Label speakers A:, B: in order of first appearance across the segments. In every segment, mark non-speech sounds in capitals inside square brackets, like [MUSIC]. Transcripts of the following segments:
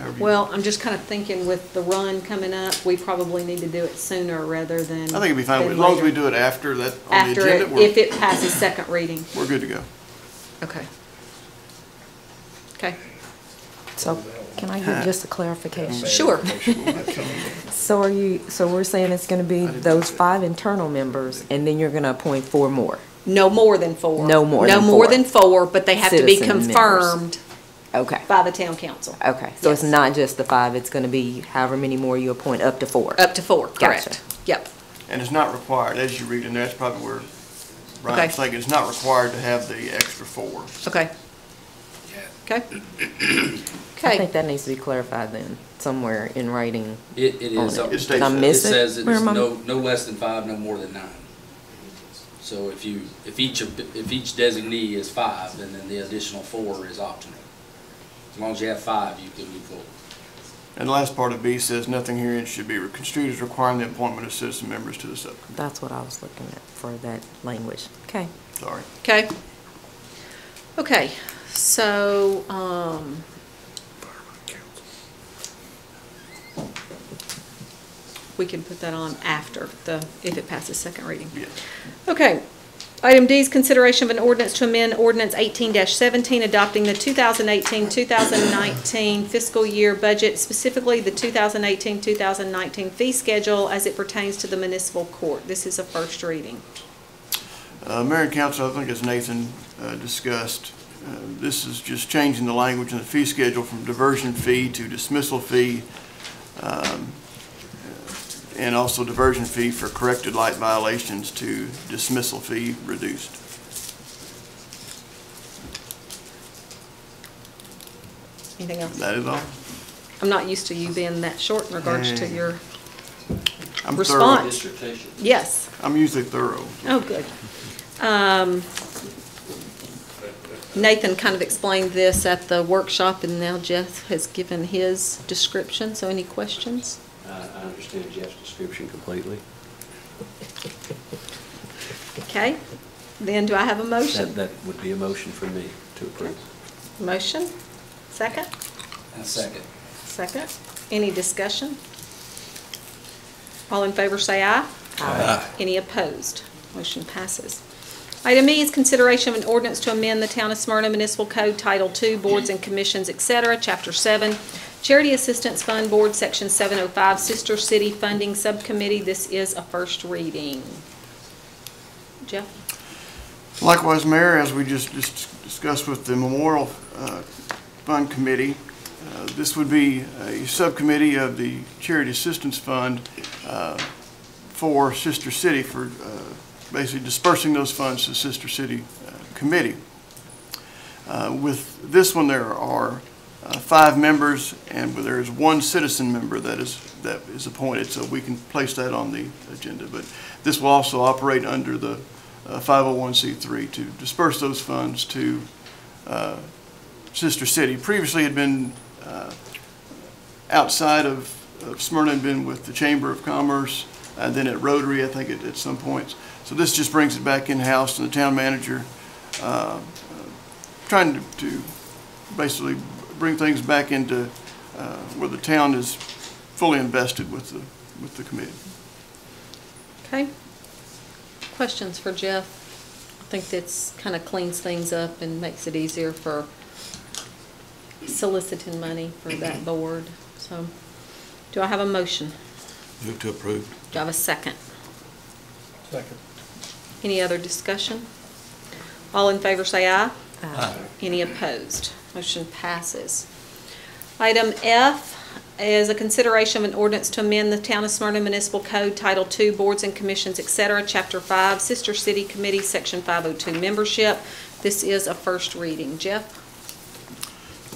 A: review.
B: Well, I'm just kind of thinking with the run coming up, we probably need to do it sooner rather than.
A: I think it'd be fine, as long as we do it after that, on the
B: After, it-
A: agenda,
B: if
A: we're,
B: it passes second reading.
A: we're good to go.
B: Okay. Okay,
C: So can I get just a clarification? [LAUGHS]
B: sure.
C: So are you, so we're saying it's gonna be those five internal members, and then you're gonna appoint four more?
B: No more than four.
C: No more
B: No
C: than
B: more
C: four.
B: than four, but they have to be
C: Citizen members.
B: confirmed
C: Okay,
B: by the town council.
C: okay. So it's
B: Yes.
C: not just the five, it's gonna be however many more you appoint, up to four?
B: Up to four,
C: Gotcha.
B: correct. Yep,
A: And it's not required, as you read in there, that's probably where Brian's
B: Okay.
A: thinking, it's not required to have the extra four.
B: okay. Okay.
C: I
B: Okay,
C: think that needs to be clarified then, somewhere in writing.
D: It, it
C: on
D: is.
A: It
D: something-
A: states
C: Did I
A: that.
D: It
C: miss it?
D: says it's
C: Where am I-
D: no, no less than five, no more than nine. So if you, if each, of- if each designee is five, and then the additional four is optional. As long as you have five, you can move forward.
A: And the last part of B says, nothing herein should be construed as requiring the appointment of citizen members to the subcommittee.
C: That's what I was looking at for that language. Okay.
A: Sorry.
B: okay. Okay, so, um, we can put that on after the, if it passes second reading.
A: Yeah.
B: Okay. Item D is consideration of an ordinance to amend ordinance eighteen seventeen adopting the 2018-2019 fiscal year budget, specifically the 2018-2019 fee schedule as it pertains to the municipal court. This is a first reading.
A: Uh, Mayor and council, I think as Nathan uh, discussed, uh, this is just changing the language in the fee schedule from diversion fee to dismissal fee, um, uh, and also diversion fee for corrected light violations to dismissal fee reduced.
B: Anything else?
A: That is all.
B: I'm not used to you being that short in regards to your,
A: I'm thorough.
B: Response.
D: Dissertation.
B: yes.
A: I'm usually thorough.
B: Oh, good. Um, Nathan kind of explained this at the workshop, and now Jeff has given his description, so any questions?
E: I I understand Jeff's description completely.
B: Okay, then do I have a
E: That,
B: motion?
E: that would be a motion for me to approve.
B: Motion? Second?
D: A second.
B: Second. Any discussion? All in favor, say aye. Aye. Any opposed? Motion passes. Item E is consideration of an ordinance to amend the Town of Smyrna Municipal Code Title II, Boards and Commissions, et cetera, Chapter 7, Charity Assistance Fund Board, Section 705, Sister City Funding Subcommittee. This is a first reading. Jeff?
A: Likewise, Mayor, as we just dis- discussed with the Memorial uh, Fund Committee, uh, this would be a subcommittee of the Charity Assistance Fund uh, for Sister City, for uh, basically dispersing those funds to Sister City uh, Committee. Uh, With this one, there are uh, five members, and there is one citizen member that is, that is appointed, so we can place that on the agenda. But this will also operate under the uh, 501c3 to disperse those funds to uh, Sister City. Previously had been uh, outside of of Smyrna, and been with the Chamber of Commerce, and then at Rotary, I think, at at some points. So this just brings it back in-house, and the town manager uh, trying to, to basically bring things back into uh, where the town is fully invested with the, with the committee.
B: Okay. Questions for Jeff? I think that's kind of cleans things up and makes it easier for soliciting money for
F: [CLEARS THROAT]
B: that board. So, do I have a motion?
F: Move to approve.
B: Do I have a second?
F: Second.
B: Any other discussion? All in favor say aye.
C: Aye.
B: Any opposed? Motion passes. Item F is a consideration of an ordinance to amend the Town of Smyrna Municipal Code Title II, Boards and Commissions, et cetera, Chapter 5, Sister City Committee, Section 502, Membership. This is a first reading. Jeff?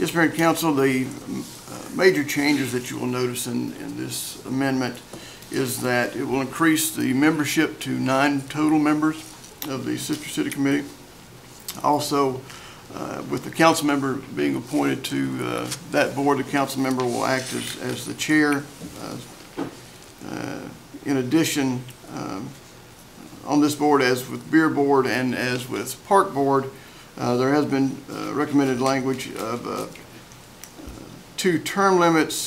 A: Yes, Mayor and Council, the um, uh, major changes that you will notice in, in this amendment is that it will increase the membership to nine total members of the Sister City Committee. Also, uh, with the council member being appointed to uh, that board, the council member will act as, as the chair. Uh, uh, In addition, um, on this board, as with Beer Board and as with Park Board, uh, there has been uh, recommended language of uh, uh, two term limits